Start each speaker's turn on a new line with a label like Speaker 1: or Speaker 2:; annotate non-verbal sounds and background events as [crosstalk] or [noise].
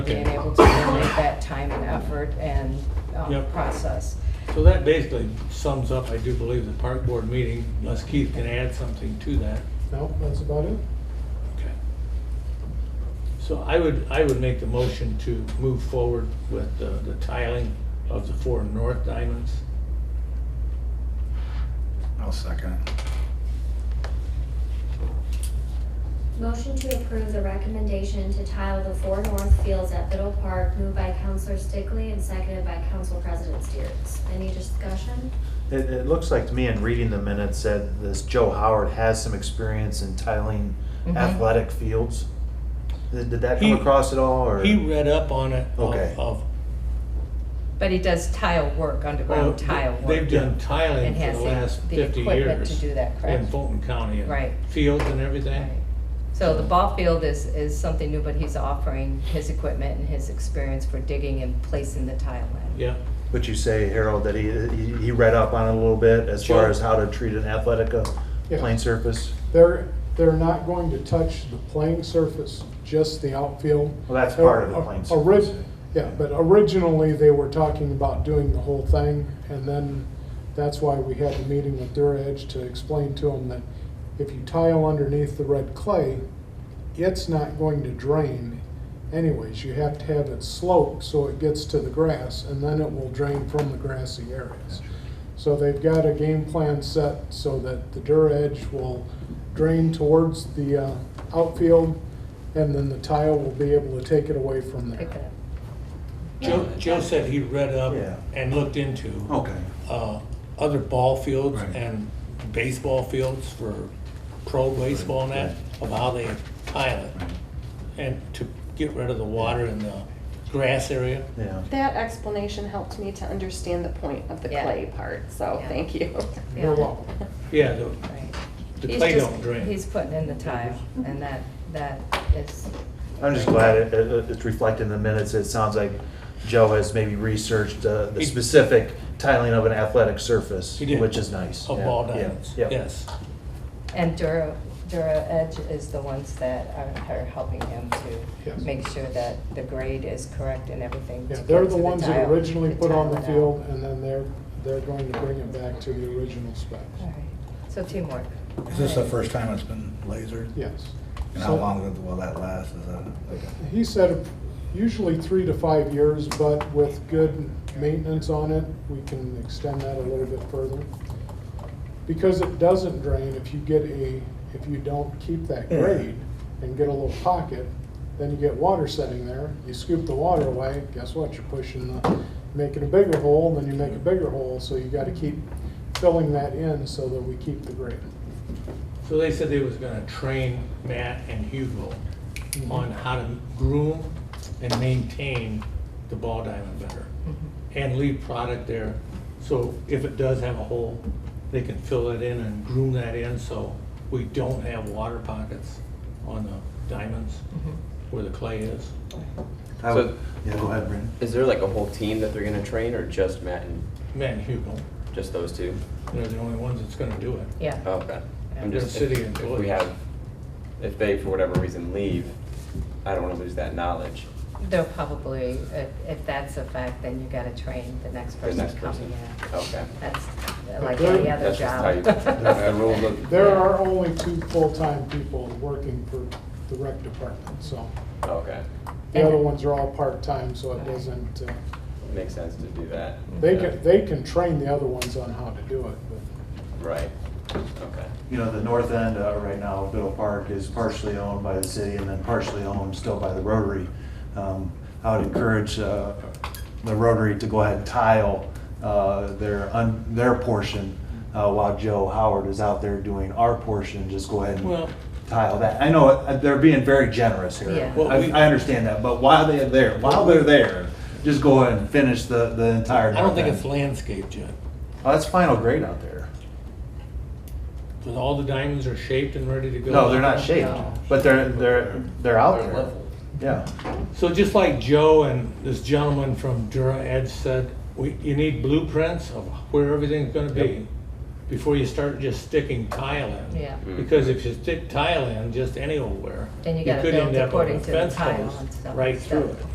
Speaker 1: being able to donate that time and effort and um,
Speaker 2: Yep.
Speaker 1: process.
Speaker 2: So that basically sums up, I do believe, the park board meeting, unless Keith can add something to that.
Speaker 3: No, that's about it.
Speaker 2: Okay. So I would, I would make the motion to move forward with the the tiling of the four north diamonds.
Speaker 4: I'll second it.
Speaker 5: Motion to approve the recommendation to tile the four north fields at Biddle Park, moved by Counselor Stickley and seconded by Council President Steers. Any discussion?
Speaker 6: It, it looks like to me in reading the minutes that this Joe Howard has some experience in tiling
Speaker 1: Mhm.
Speaker 6: athletic fields. Did, did that
Speaker 2: Mm-hmm. He-
Speaker 6: come across at all, or?
Speaker 2: He read up on it of-
Speaker 6: Okay.
Speaker 2: of.
Speaker 1: But he does tile work, underground tile work.
Speaker 2: They've done tiling
Speaker 1: And
Speaker 2: for
Speaker 1: has
Speaker 2: the
Speaker 1: the-
Speaker 2: last
Speaker 1: the
Speaker 2: fifty years.
Speaker 1: equipment to do that, correct?
Speaker 2: In Fulton County. and
Speaker 1: Right.
Speaker 2: Fields and everything.
Speaker 1: Right. So the ball field is, is something new, but he's offering his equipment and his experience for digging and placing the tile in.
Speaker 2: Yeah,
Speaker 6: But you say, Harold, that he, he, he read up on it a little bit as
Speaker 2: Sure.
Speaker 6: far as how to treat an athletic, uh,
Speaker 3: Yeah.
Speaker 6: plane surface?
Speaker 3: They're, they're not going to touch the playing surface, just the outfield.
Speaker 6: Well, that's part of the playing
Speaker 3: O- ori-
Speaker 6: surface.
Speaker 3: Yeah, but originally, they were talking about doing the whole thing, and then that's why we had the meeting with Dura Edge to explain to them that if you tile underneath the red clay, it's not going to drain anyways. You have to have it sloped so it gets to the grass, and then it will drain from the grassy areas. So they've got a game plan set so that the Dura Edge will drain towards the uh, outfield, and then the tile will be able to take it away from there.
Speaker 1: Pick it up.
Speaker 2: Joe, Joe said he read up
Speaker 6: Yeah. Oh,
Speaker 2: and looked into.
Speaker 4: Okay.
Speaker 2: uh, other ball fields
Speaker 4: Right.
Speaker 2: and baseball fields for pro baseball and that, of how they tile it. And to get rid of the water in the grass area.
Speaker 6: Yeah.
Speaker 7: That explanation helped me to understand the point of the
Speaker 1: Yeah.
Speaker 7: clay part, so
Speaker 1: Yeah.
Speaker 7: thank you.
Speaker 3: You're
Speaker 1: Yeah.
Speaker 3: welcome.
Speaker 2: Yeah, the,
Speaker 1: Right.
Speaker 2: the
Speaker 1: He's
Speaker 2: clay
Speaker 1: just-
Speaker 2: don't drain.
Speaker 1: He's putting in the tile and that, that is,
Speaker 6: I'm just glad it, it, it's reflected in the minutes. It sounds like Joe has maybe researched, uh, the
Speaker 2: He-
Speaker 6: specific tiling of an athletic surface,
Speaker 2: He did.
Speaker 6: which is nice.
Speaker 2: Of
Speaker 6: Yeah,
Speaker 2: ball
Speaker 6: yeah,
Speaker 2: diamonds,
Speaker 6: yeah.
Speaker 2: yes.
Speaker 1: and Dura, Dura Edge is the ones that are, are helping him to
Speaker 3: Yes.
Speaker 1: make sure that the grade is correct and everything. to
Speaker 3: Yeah,
Speaker 1: get
Speaker 3: they're
Speaker 1: to
Speaker 3: the ones that
Speaker 1: tile,
Speaker 3: originally
Speaker 1: to
Speaker 3: put on
Speaker 1: tile
Speaker 3: the
Speaker 1: it out.
Speaker 3: field, and then they're, they're going to bring it back to the original specs.
Speaker 1: All right. So teamwork.
Speaker 4: Is this the first time it's been lasered?
Speaker 3: Yes.
Speaker 4: And how
Speaker 3: So-
Speaker 4: long will that last? Is that like a?
Speaker 3: He said usually three to five years, but with good maintenance on it, we can extend that a little bit further. Because it doesn't drain, if you get a, if you don't keep that grade and get a little pocket, then you get water setting there, you scoop the water away, guess what, you're pushing the, making a bigger hole, then you make a bigger hole, so you gotta keep filling that in so that we keep the grade.
Speaker 2: So they said they was gonna train Matt and Hugo on how to groom and maintain the ball diamond better. And leave product there, so if it does have a hole, they can fill it in and groom that in, so we don't have water pockets on the diamonds where the clay is.
Speaker 6: I
Speaker 8: So-
Speaker 6: would, yeah, go ahead, Brandon.
Speaker 8: Is there like a whole team that they're gonna train, or just Matt and
Speaker 2: Matt and Hugo,
Speaker 8: just those two?
Speaker 2: they're the only ones that's gonna do it.
Speaker 1: Yeah.
Speaker 8: Oh, Okay. I'm
Speaker 2: They're
Speaker 8: just
Speaker 2: city
Speaker 8: if- if
Speaker 2: employees.
Speaker 8: we have, if they for whatever reason leave, I don't wanna lose that knowledge.
Speaker 1: They'll probably, if, if that's a fact, then you gotta train the next
Speaker 8: The
Speaker 1: person
Speaker 8: next
Speaker 1: coming
Speaker 8: person.
Speaker 1: in.
Speaker 8: Okay.
Speaker 1: That's like any other
Speaker 8: That's just
Speaker 1: [laughs]
Speaker 8: how you-
Speaker 1: job.
Speaker 8: the rules of-
Speaker 3: There are only two full-time people working for the rec department, so.
Speaker 8: Okay.
Speaker 3: The other ones are all part-time, so it doesn't, uh,
Speaker 8: Makes sense to do that.
Speaker 3: they
Speaker 8: Yeah.
Speaker 3: can, they can train the other ones on how to do it, but
Speaker 8: Right. Okay.
Speaker 6: You know, the north end uh, right now of Biddle Park is partially owned by the city and then partially owned still by the Rotary. Um, I would encourage uh, the Rotary to go ahead and tile uh, their, un- their portion uh, while Joe Howard is out there doing our portion, just go ahead
Speaker 2: Well-
Speaker 6: and tile that. I know uh, they're being very generous here.
Speaker 1: Yeah.
Speaker 2: Well,
Speaker 6: I
Speaker 2: we-
Speaker 6: I understand that, but while they're there, while they're there, just go ahead and finish the, the entire.
Speaker 2: I don't think
Speaker 6: north
Speaker 2: it's
Speaker 6: end.
Speaker 2: landscaped yet,
Speaker 6: Oh, that's final grade out there.
Speaker 2: because all the diamonds are shaped and ready to go.
Speaker 6: No, they're not shaped,
Speaker 1: No.
Speaker 6: but they're, they're, they're out
Speaker 8: They're
Speaker 6: there.
Speaker 8: level.
Speaker 6: Yeah,
Speaker 2: So just like Joe and this gentleman from Dura Edge said, we, you need blueprints of where everything's gonna be before you start just sticking tile in.
Speaker 1: Yeah.
Speaker 2: Because if you stick tile in just anywhere,
Speaker 1: Then you
Speaker 2: you
Speaker 1: gotta
Speaker 2: could
Speaker 1: build
Speaker 2: end up with
Speaker 1: according
Speaker 2: a
Speaker 1: to the
Speaker 2: fence
Speaker 1: tile
Speaker 2: post
Speaker 1: and stuff.
Speaker 2: right through
Speaker 1: So-
Speaker 2: it.